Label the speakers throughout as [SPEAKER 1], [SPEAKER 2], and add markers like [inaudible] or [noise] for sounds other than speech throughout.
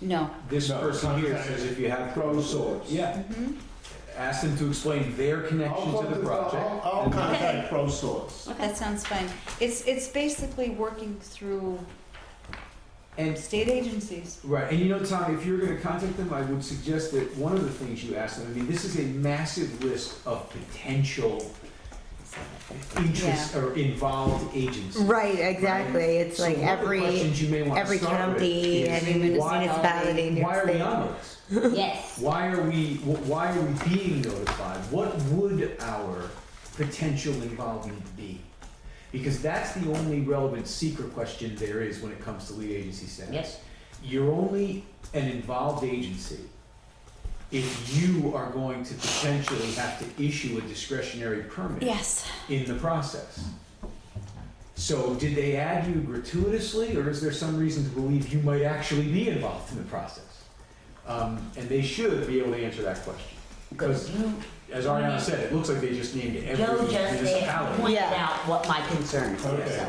[SPEAKER 1] No.
[SPEAKER 2] This
[SPEAKER 3] No,
[SPEAKER 2] person here
[SPEAKER 3] contact
[SPEAKER 2] says if you have
[SPEAKER 3] Pro
[SPEAKER 2] pros,
[SPEAKER 3] Source.
[SPEAKER 2] yeah,
[SPEAKER 4] Mm-hmm.
[SPEAKER 1] Mhm.
[SPEAKER 2] ask them to explain their connection
[SPEAKER 3] I'll
[SPEAKER 2] to the
[SPEAKER 3] contact-
[SPEAKER 2] project.
[SPEAKER 3] I'll- I'll
[SPEAKER 2] and-
[SPEAKER 3] contact Pro Source.
[SPEAKER 1] That sounds fine. It's, it's basically working through
[SPEAKER 2] And
[SPEAKER 1] state agencies.
[SPEAKER 2] Right, and you know, Tom, if you're going to contact them, I would suggest that one of the things you ask them. I mean, this is a massive list of potential interests or involved agents.
[SPEAKER 5] Right, exactly. It's
[SPEAKER 2] So
[SPEAKER 5] like
[SPEAKER 2] one of the
[SPEAKER 5] every,
[SPEAKER 2] questions you may want
[SPEAKER 5] every
[SPEAKER 2] to start
[SPEAKER 5] county,
[SPEAKER 2] with is,
[SPEAKER 5] every
[SPEAKER 1] why-
[SPEAKER 5] municipality, in New
[SPEAKER 2] why
[SPEAKER 5] York
[SPEAKER 2] are we
[SPEAKER 5] State.
[SPEAKER 2] on this? [laughs]
[SPEAKER 1] Yes.
[SPEAKER 2] Why are we? wh- Why are we being notified? What would our potential involvement be? Because that's the only relevant secret question there is when it comes to lead agency status.
[SPEAKER 4] Yes.
[SPEAKER 2] You're only an involved agency if you are going to potentially have to issue a discretionary permit
[SPEAKER 1] Yes.
[SPEAKER 2] in the process. So did they add you gratuitously, or is there some reason to believe you might actually be involved in the process? Um, and they should be able to answer that question. Because,
[SPEAKER 4] Because you,
[SPEAKER 2] as Ariana said, it looks like they just named every
[SPEAKER 4] Joe just there
[SPEAKER 2] municipality.
[SPEAKER 4] pointed
[SPEAKER 5] Yeah.
[SPEAKER 4] out what my concerns were,
[SPEAKER 3] Okay.
[SPEAKER 4] so.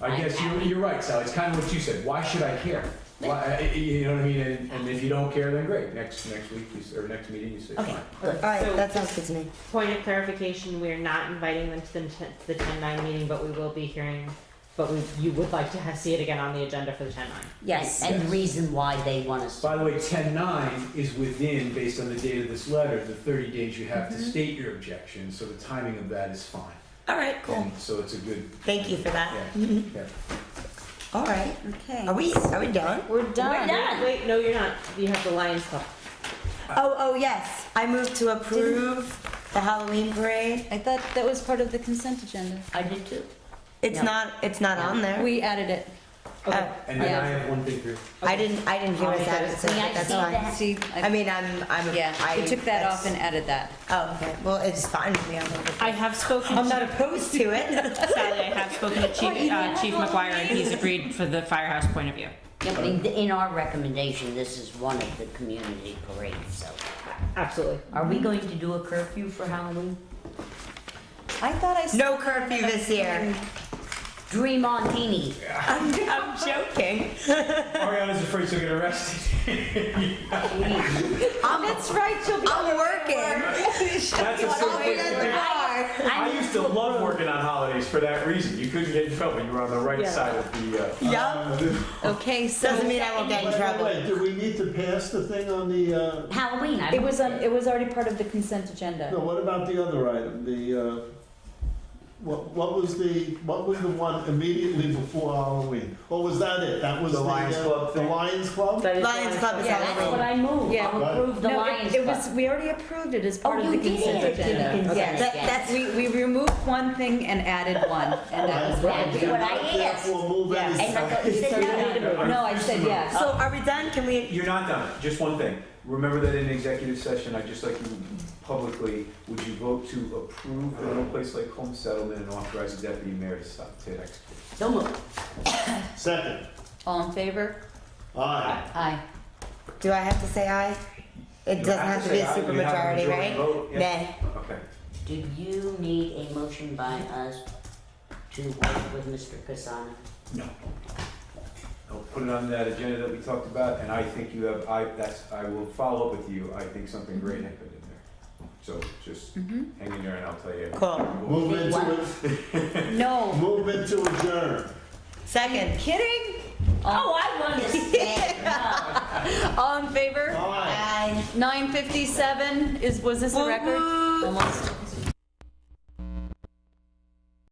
[SPEAKER 2] I guess you're, you're right, Sally, it's kind of what you said, why should I care? Why, you know what I mean, and, and if you don't care, then great, next, next week, you s- or next meeting, you say,
[SPEAKER 4] Okay,
[SPEAKER 2] fine.
[SPEAKER 5] All right,
[SPEAKER 6] So-
[SPEAKER 5] that sounds good to me.
[SPEAKER 6] Point of clarification, we are not inviting them to the, to the ten nine meeting, but we will be hearing, but we, you would like to ha see it again on the agenda for the ten nine.
[SPEAKER 4] Yes, and the
[SPEAKER 2] Yes.
[SPEAKER 4] reason why they want us to.
[SPEAKER 2] By the way, ten nine is within, based on the date of this letter, the thirty days you have to state your objection, so the timing of that is fine.
[SPEAKER 5] All right, cool.
[SPEAKER 2] And So it's a good,
[SPEAKER 5] Thank you for that.
[SPEAKER 2] yeah, yeah.
[SPEAKER 5] All right.
[SPEAKER 1] Okay.
[SPEAKER 5] Are we, are we done?
[SPEAKER 1] We're done.
[SPEAKER 4] done.
[SPEAKER 6] Wait, no, you're not, you have the Lions Club.
[SPEAKER 2] Uh,
[SPEAKER 5] Oh, oh, yes. I move to approve the Halloween parade.
[SPEAKER 1] I thought that was part of the consent agenda.
[SPEAKER 4] I did too.
[SPEAKER 5] It's
[SPEAKER 4] No.
[SPEAKER 5] not, it's not on there.
[SPEAKER 1] We added it.
[SPEAKER 5] Oh,
[SPEAKER 6] Okay,
[SPEAKER 2] And then
[SPEAKER 1] Yeah.
[SPEAKER 2] I have one thing for you.
[SPEAKER 5] I didn't, I didn't hear
[SPEAKER 6] I'll
[SPEAKER 5] what
[SPEAKER 6] make
[SPEAKER 5] that
[SPEAKER 6] that-
[SPEAKER 5] is, so
[SPEAKER 4] May I
[SPEAKER 5] that's
[SPEAKER 4] see
[SPEAKER 5] fine.
[SPEAKER 4] that?
[SPEAKER 1] See,
[SPEAKER 5] I
[SPEAKER 1] I,
[SPEAKER 5] mean, I'm, I'm.
[SPEAKER 1] yeah,
[SPEAKER 5] I-
[SPEAKER 1] we took that
[SPEAKER 5] that's-
[SPEAKER 1] off and added that.
[SPEAKER 5] Oh, okay. Well, it's fine with me. I'm over it.
[SPEAKER 7] I have spoken
[SPEAKER 5] I'm
[SPEAKER 7] to
[SPEAKER 5] not opposed to it.
[SPEAKER 6] [laughs]
[SPEAKER 7] Sally. I have spoken to Chief, uh, Chief McGuire, and he's agreed for the firehouse point of view.
[SPEAKER 4] Yeah, but in- in our recommendation, this is one of the community parades, so.
[SPEAKER 6] absolutely.
[SPEAKER 4] Are we going to do a curfew for Halloween?
[SPEAKER 1] I thought I.
[SPEAKER 5] No curfew this year.
[SPEAKER 4] Dream on teeny.
[SPEAKER 5] I'm, I'm joking.
[SPEAKER 2] Ariana's afraid she'll get arrested.
[SPEAKER 1] That's right, she'll be.
[SPEAKER 5] I'm [laughs] working.
[SPEAKER 2] That's a
[SPEAKER 5] I'll be at the
[SPEAKER 2] thing.
[SPEAKER 5] bar.
[SPEAKER 4] I
[SPEAKER 2] used to love working on holidays for that reason. You couldn't get in trouble. You were on the right
[SPEAKER 6] Yeah. side
[SPEAKER 2] of the, uh.
[SPEAKER 5] Yup.
[SPEAKER 1] Okay,
[SPEAKER 5] Doesn't
[SPEAKER 1] so
[SPEAKER 5] mean I won't get in
[SPEAKER 3] Wait, wait,
[SPEAKER 5] trouble.
[SPEAKER 3] wait, do we need to pass the thing on the, uh,
[SPEAKER 4] Halloween, I.
[SPEAKER 1] it was on, it was already part of the consent agenda.
[SPEAKER 3] no, what about the other item? The, uh, what, what was the, what was the one immediately before Halloween? Or was that it? That was
[SPEAKER 2] The
[SPEAKER 3] the.
[SPEAKER 2] Lions
[SPEAKER 3] uh,
[SPEAKER 2] Club
[SPEAKER 3] The
[SPEAKER 2] thing?
[SPEAKER 3] Lions Club?
[SPEAKER 6] That is
[SPEAKER 5] Lions Club is
[SPEAKER 4] Yeah, that's what I moved.
[SPEAKER 1] Yeah.
[SPEAKER 4] I'll approve the
[SPEAKER 1] No, it-
[SPEAKER 4] Lions
[SPEAKER 1] It
[SPEAKER 4] Club. [laughs]
[SPEAKER 1] was, we already approved it as part of
[SPEAKER 4] Oh,
[SPEAKER 1] the
[SPEAKER 4] you did
[SPEAKER 1] consent
[SPEAKER 4] it.
[SPEAKER 1] agenda.
[SPEAKER 4] Consent
[SPEAKER 5] Yeah, that,
[SPEAKER 4] agenda.
[SPEAKER 5] that's,
[SPEAKER 1] We, we removed one thing and added one, and that was what I
[SPEAKER 4] That's
[SPEAKER 1] did.
[SPEAKER 4] what I asked.
[SPEAKER 3] Therefore, move
[SPEAKER 5] Yeah.
[SPEAKER 3] any-
[SPEAKER 4] And I thought you said no, no, no.
[SPEAKER 1] No, I said yes.
[SPEAKER 5] so are we done? Can we?
[SPEAKER 2] You're not done. Just one thing. Remember that in executive session, I'd just like you publicly, would you vote to approve in a place like home settlement and authorize the deputy mayor to stop E to execute?
[SPEAKER 4] So moved.
[SPEAKER 3] Second,
[SPEAKER 1] All in favor?
[SPEAKER 3] aye.
[SPEAKER 1] Aye.
[SPEAKER 5] Do I have to say aye? It doesn't have to be a
[SPEAKER 2] say aye, you have
[SPEAKER 5] supermajority,
[SPEAKER 2] majority
[SPEAKER 5] right?
[SPEAKER 2] vote, yeah.
[SPEAKER 5] Nay.
[SPEAKER 2] Okay.
[SPEAKER 4] Do you need a motion by us to work with Mr. Kasana?
[SPEAKER 2] No. I'll put it on that agenda that we talked about, and I think you have, I, that's, I will follow up with you. I think something great happened in there. So just hang in there and I'll tell you.
[SPEAKER 5] Cool.
[SPEAKER 3] Move into,
[SPEAKER 1] No.
[SPEAKER 3] [laughs] move into adjourn.
[SPEAKER 5] Second.
[SPEAKER 1] Kidding?
[SPEAKER 4] Oh, I want to stay. No.
[SPEAKER 1] All in favor?
[SPEAKER 3] Aye.
[SPEAKER 5] Aye.
[SPEAKER 1] 957 is, was this a record? Almost.